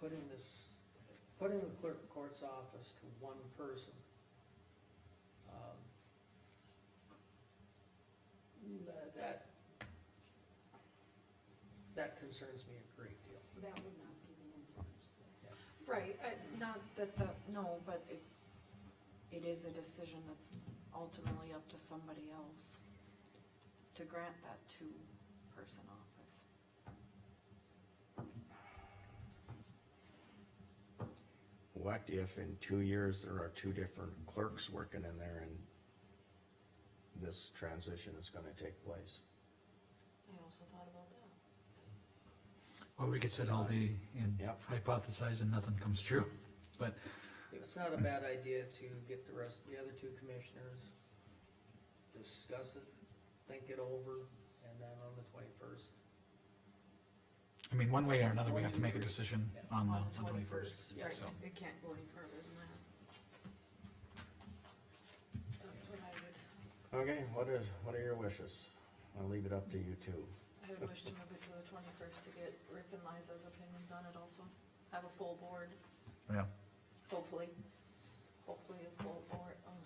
putting this, putting the clerk of court's office to one person. um, tha- That, that concerns me a great deal. That would not be the intent. Right, uh, not that, the no, but it, it is a decision that's ultimately up to somebody else to grant that two-person office. What if in two years there are two different clerks working in there and this transition is gonna take place? I also thought about that. Well, we could sit all day and Yep. hypothesize and nothing comes true, but It's not a bad idea to get the rest, the other two commissioners, discuss it, think it over, and then on the twenty-first, I mean, one way or another, we have to make a decision on On the the twenty-first. Right, so. it can't go any further than that. That's what I would, Okay, what is, what are your wishes? I'll leave it up to you two. I would wish to move it to the twenty-first to get Rick and Liza's opinions on it also. Have a full board, Yeah, hopefully, hopefully a full board, um,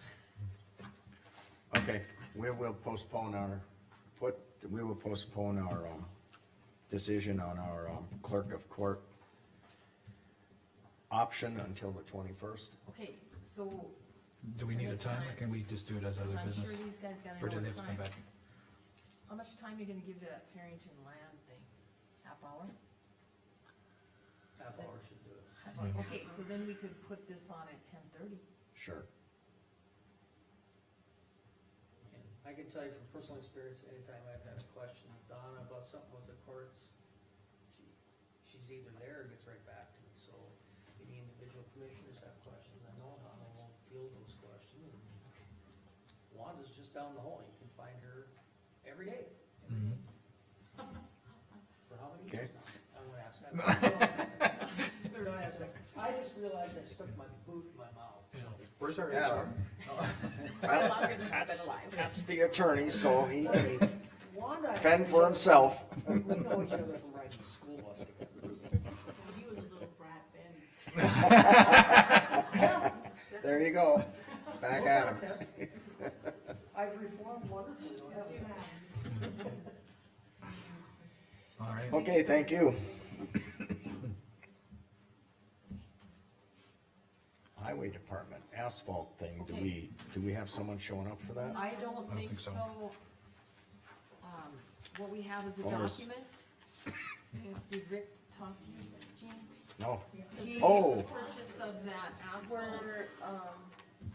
Okay, we will postpone our, put, we will postpone our, um, decision on our, um, clerk of court option until the twenty-first. Okay, so, do we need a time, or can we just do it as i other I'm sure business? these guys gotta Or do know they have what to come time, back? how much time you gonna give to that Farrington land thing? Half hour? half hour should do it. I was like, Okay, so then we could put this on at ten thirty. Sure. And I can tell you from personal experience, anytime I've had a question, Donna, about something with the courts, she, she's either there or gets right back to me, so if any individual commissioners have questions, I know Donna will field those questions. and Wanda's just down the hall, you can find her every day, Mhm. for how many Okay. years now? I won't ask that. I won't ask that. I just realized I stuck my boot in my mouth, so. Where's our Yeah. Probably longer than I've been That's, alive. that's the attorney, so he can Wanda. fend for himself. We know each other from riding the school bus together. You and little brat Ben. There you go. Back at him. Contest. I've reformed wonderfully. don't I? All right, Okay, thank you. Highway Department asphalt thing, do Okay. we, do we have someone showing up for that? I don't think think so. so. Um, what we have is a Oh, there's- document. Did Rick talk to you, Jean? No. This is Oh. the purchase of that asphalt. We're, um,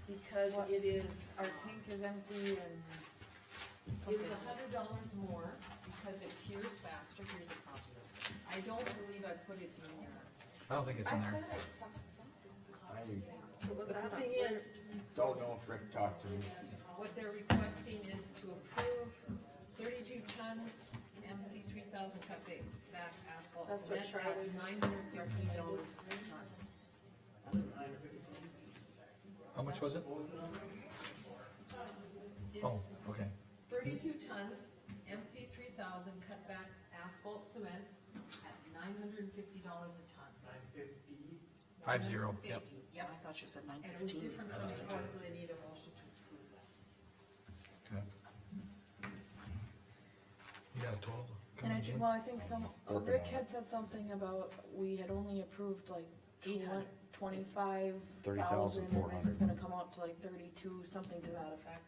because What? it is, our tank is empty and. It was a hundred dollars more because it cures faster, here's a copy of it. I don't believe I put it in here. I don't think it's in there. I But the thing is, don't know if Rick talked to me. what they're requesting is to approve thirty-two tons MC three thousand cut ba- back asphalt That's what cement at nine hundred fifteen dollars per ton. How much was it? Oh, It's okay. thirty-two tons MC three thousand cut back asphalt cement at nine hundred and fifty dollars a ton. Five zero, yep. Fifty, Yep, I thought you said nine and it was fifteen. different from before, so they need a motion to approve that. Okay. You got a total? And I coming think, in? well, I think some, uh, Working Rick on had said something about, we had only approved like Eight hundred. twenty-five thousand, and this is 30,400. gonna come out to like thirty-two, something to that effect.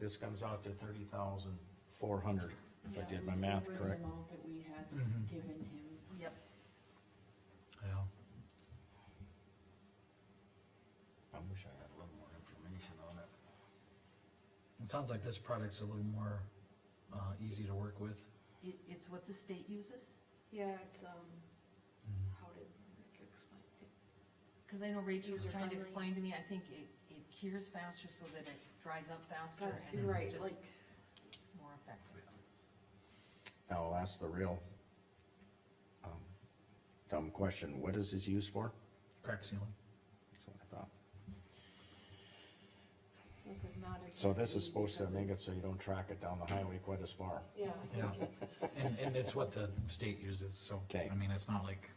This comes out to thirty thousand four hundred, if I Yeah, did it my was math over the correct. amount that we had Mhm. given him. Yep. Yeah. I wish I had a little more information on it. It sounds like this product's a little more, uh, easy to work with. It, it's what the state uses, yeah, it's, um, how did Rick explain it? cause I know Rachel was trying User-friendly. to explain to me, I think it, it cures faster so that it dries up faster That's and right, it's just like, more effective. Now, I'll ask the real, um, dumb question, what is this used for? Crack sealing. That's what I thought. this is not as So this is messy supposed to because make of- it so you don't track it down the highway quite as far. Yeah, I think Yeah. And, and it's what the state uses, so, Okay. I mean, it's not like